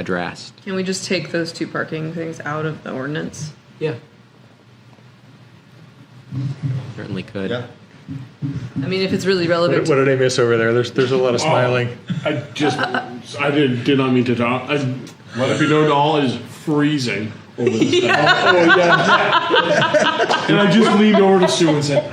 addressed. Can we just take those two parking things out of the ordinance? Yeah. Certainly could. Yeah. I mean, if it's really relevant. What, to- what did I miss over there? There's there's a lot of smiling. Oh, I just, I did, did not mean to talk. I, if you know, all is freezing over this thing. Oh, yeah. and I just leaned over to Sue and said,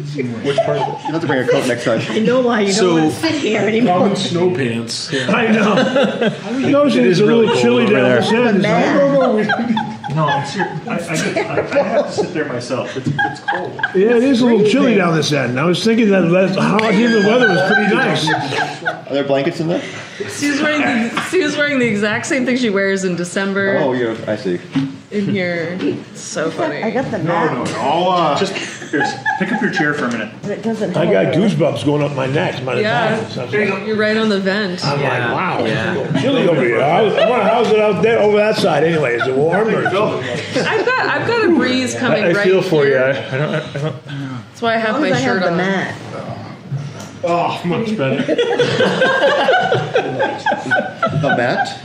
Which part? You have to bring a coat next time. You know why you So- don't want to sit here I'm anymore. in snow pants. I know. I know she is a really little cold chilly over down there. the stairs. Man. No, I'm serious. I, I, I, I have to sit there myself. It's, it's cold. Yeah, it is a little chilly down this end. I was thinking that last hot humid weather was pretty nice. Are there blankets in there? Sue's wearing the, Sue's wearing the exact same thing she wears in December Oh, yeah. I see. in here. So I funny. got the map, All uh, Just here, pick up your chair for a minute. but it doesn't I help. got goosebumps going up my neck. My Yeah. neck. I'm like, You're right on the vent. Yeah, wow, yeah. it's so chilly over here. How's, I wonder how's it out there over that side anyway? Is it warm or? I've got I've got a breeze coming I right feel for you. here. I, I don't. I don't That's why I have As long my as I shirt have the on. map. Oh, much better. the mat.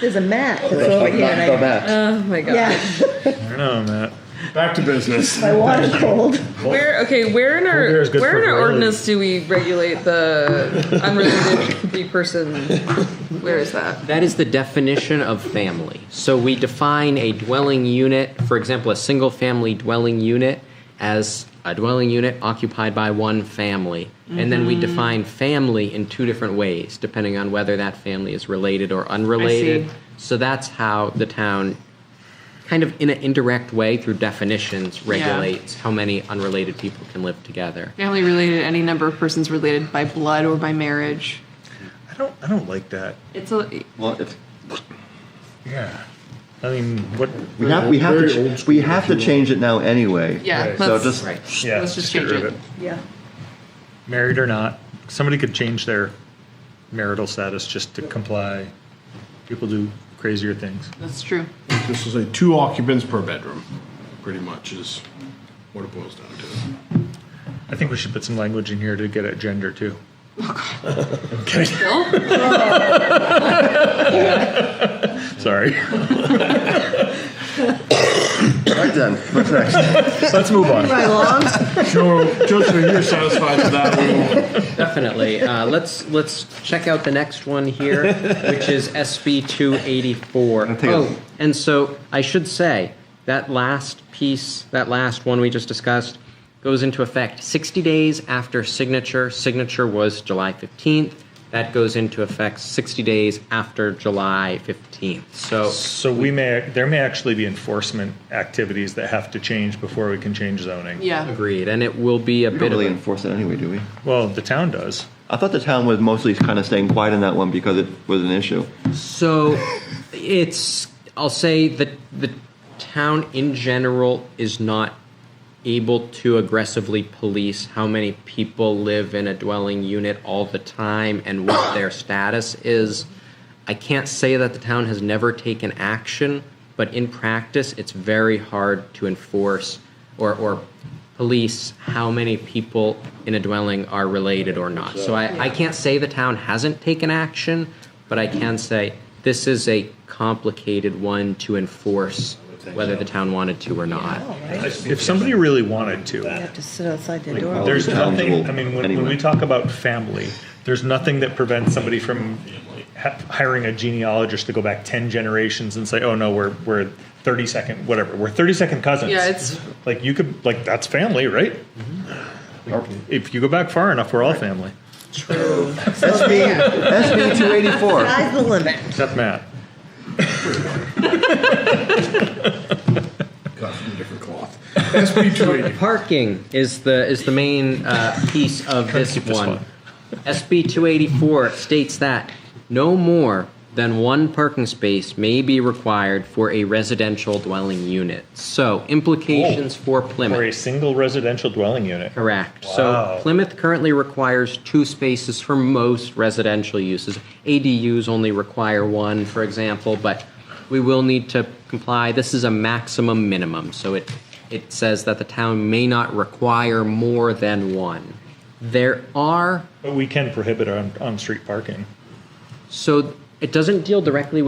There's a map that's That's over like here. not and the I- mat. Oh my god. Yeah, I don't know, Matt. Back to business. my water's cold. Where okay, where in beer is our good where for in our brain. ordinance do we regulate the unrelated big person? Where is that? That is the definition of family. So we define a dwelling unit, for example, a single family dwelling unit, as a dwelling unit occupied by one family. And then we define family in two different ways, depending on whether that family is related or unrelated. So that's how the town, kind of in an indirect way through definitions, regulates how many unrelated people can live together. Family related, any number of persons related by blood or by marriage. I don't. I don't like that. It's a Well, if, Yeah. I mean, what? we have we have to ch- we have to change it now anyway. Yeah, Right. So let's- just Right. Yeah. Let's just get change rid of it. Yeah. Married or not, somebody could change their marital status just to comply. People do crazier things. that's true. This is a two occupants per bedroom, pretty much, is what it boils down to. I think we should put some language in here to get at gender too. Bill? Sorry. right then. What's next? Let's move on. My long Joe, Joe, so you're satisfied with that one? Definitely. Uh, let's let's check out the next one here, which is SB two eighty four. take a- Oh, and so I should say that last piece, that last one we just discussed, goes into effect sixty days after signature. Signature was July fifteenth. That goes into effect sixty days after July fifteenth. So So we may there may actually be enforcement activities that have to change before we can change zoning. Yeah. agreed, and it will be a We bit don't really of. a- enforce it anyway, do we? Well, the town does. I thought the town was mostly kind of staying quiet on that one because it was an issue. So it's I'll say that the town in general is not able to aggressively police how many people live in a dwelling unit all the time and what their status is. I can't say that the town has never taken action, but in practice it's very hard to enforce or or police how many people in a dwelling are related or not. So I, I can't say the town hasn't taken action, but I can say this is a complicated one to enforce whether the town wanted to or not. If somebody really wanted to. You have to sit outside the door. all There's the towns nothing, will I mean, when, when anyway. we talk about family, there's nothing that prevents somebody from ha- hiring a genealogist to go back 10 generations and say, oh no, we're, we're 30 second, whatever, we're 30 second cousins. Yeah, it's- Like you could, like, that's family, right? Like, If you go back far enough, we're all family. SB SB two eighty four. Sky's the limit. Except Matt. Cut from a different cloth. SB 280. Parking is the is the main uh, piece of this keep this one. one. SB 284 states that no more than one parking space may be required for a residential dwelling unit. So implications Oh, for Plymouth. Or a single residential dwelling unit. Correct. Wow. So Plymouth currently requires two spaces for most residential uses. ADUs only require one, for example, but we will need to comply. This is a maximum minimum, so it, it says that the town may not require more than one. There are, But we can prohibit on, on street parking. so it doesn't deal directly